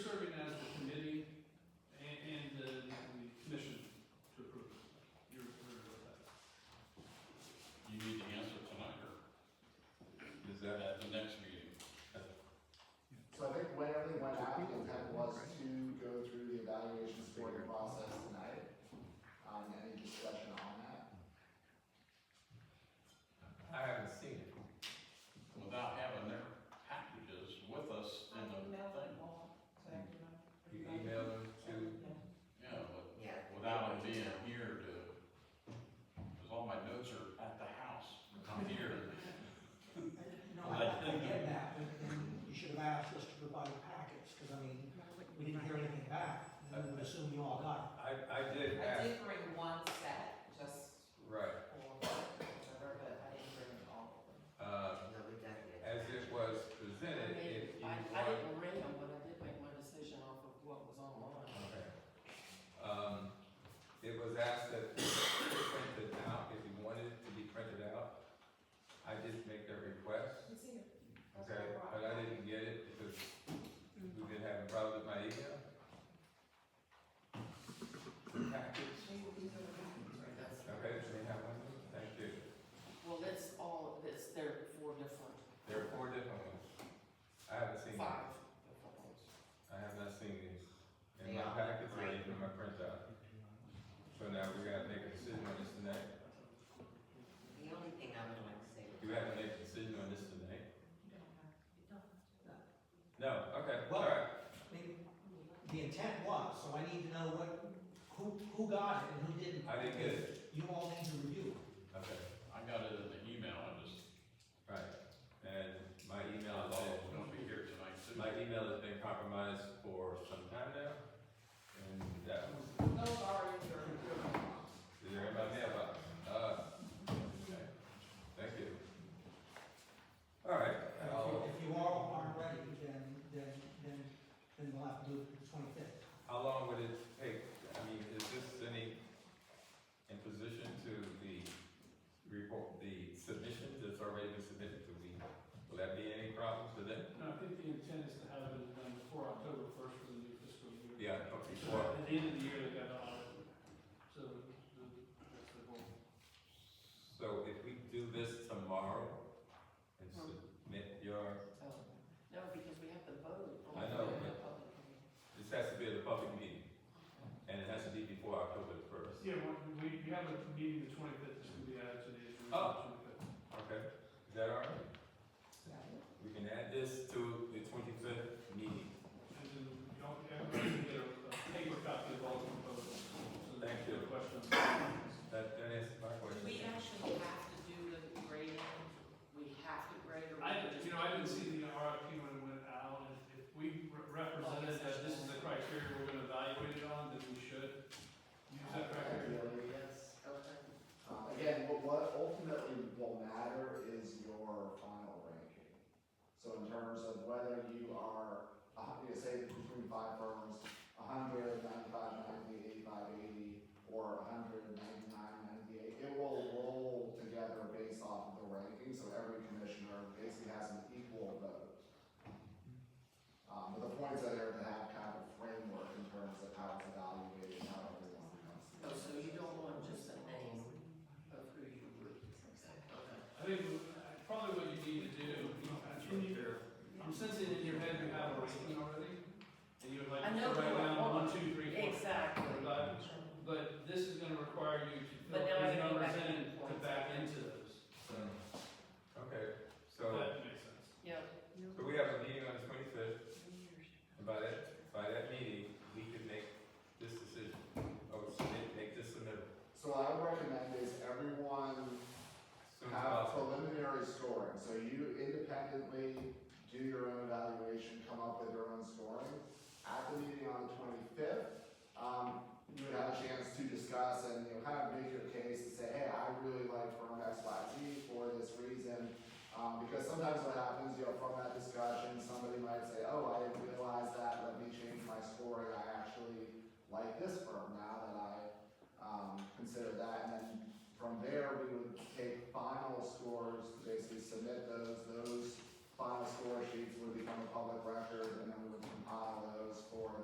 um, uh, gonna assume you all got I, I did I ask, did bring one set, just right, for whatever, but I didn't bring all of uh, No, we got that. as it was presented, if you I, want. I didn't read them, but I did make my decision off of what was online. Okay. Um, it was asked that it be printed out, if you wanted it to be printed out. I did make that request, them. okay, but I didn't get it because we've been having problems with my email. The Package, That's- okay, so we have one, thank you. Well, that's all, that's, there are four different, There are four different ones. I haven't seen these. five different ones. I have not seen these. In my Yeah. packets or even in my printout. So now we gotta make a decision on this tonight. The only thing I would like to say. You have to make a decision on this tonight? Well, No, okay, Well- alright. it. I mean, the intent was, so I need to know what, who, who got it and who didn't. I didn't get it. You all need to review. Okay, I got it in the email, I just, right. And my email I'm is, gonna be here tonight too. my email has been compromised for some time now. And that was, Those are in your, your mailbox. is there anybody mailbox? Uh, okay. Thank you. Alright, If you- If you all aren't ready, then, then, then, then we'll have to do it the twenty-fifth. How long would it take, I mean, is this any, in position to the report, the submission that's already been submitted to the, will that be any problem to them? No, I think the intent is to have it done before October first for the new fiscal year. Yeah, okay, So well, At the end of the year, they got to audit, so the, that's the goal. so if we do this tomorrow and submit your, So, Oh, no, because we have to vote. on I know, but- the public hearing. this has to be at a public meeting, and it has to be before October the first. Yeah, we- we, we have a meeting the twenty-fifth, this will be added to the agenda. Oh. Okay, is that all right? We can add this to the twenty-fifth meeting. And then y'all, everybody can get a a paper copy of all the proposals. So there's Thank you. no Questions. That, that answers my question. We actually have to do the grading, we have to grade or. we I, just- you know, I didn't see the RFP when it went out, and if we re- represented that this is the criteria we're gonna evaluate it on, then we should use that criteria. Oh, Yes, okay. Uh, Again, what, what ultimately will matter is your final ranking. So in terms of whether you are, a hun- you say between five firms, a hundred, ninety-five, ninety, eighty-five, eighty, or a hundred, ninety-nine, ninety-eight, it will roll together based off of the ranking, so every commissioner basically has an equal vote. Um, but the points are there to have kind of framework in terms of how it's evaluated, how everyone comes. Oh, so you don't want just a name of who you would, okay. I think probably what you need to do, you know, in your, I'm sensing in your head you have a ranking already, and you would like I to know write what I down one, want. two, three, four, Exactly. five, but this is gonna require you to But fill now I those gotta go numbers back in and to forth. back into those. Mm. Okay, If so, That makes sense. Yeah, so we have a meeting on the twenty-fifth, and by that, by that meeting, we could make this decision, or submit, make this submittal So what I would recommend is everyone as soon as have possible. preliminary scoring, so you independently do your own evaluation, come up with your own scoring. At the meeting on the twenty-fifth, um, you would have a chance to discuss and, you know, kind of make your case and say, hey, I really like firm X, Y, Z for this reason. Um, because sometimes what happens, you know, from that discussion, somebody might say, oh, I didn't realize that um,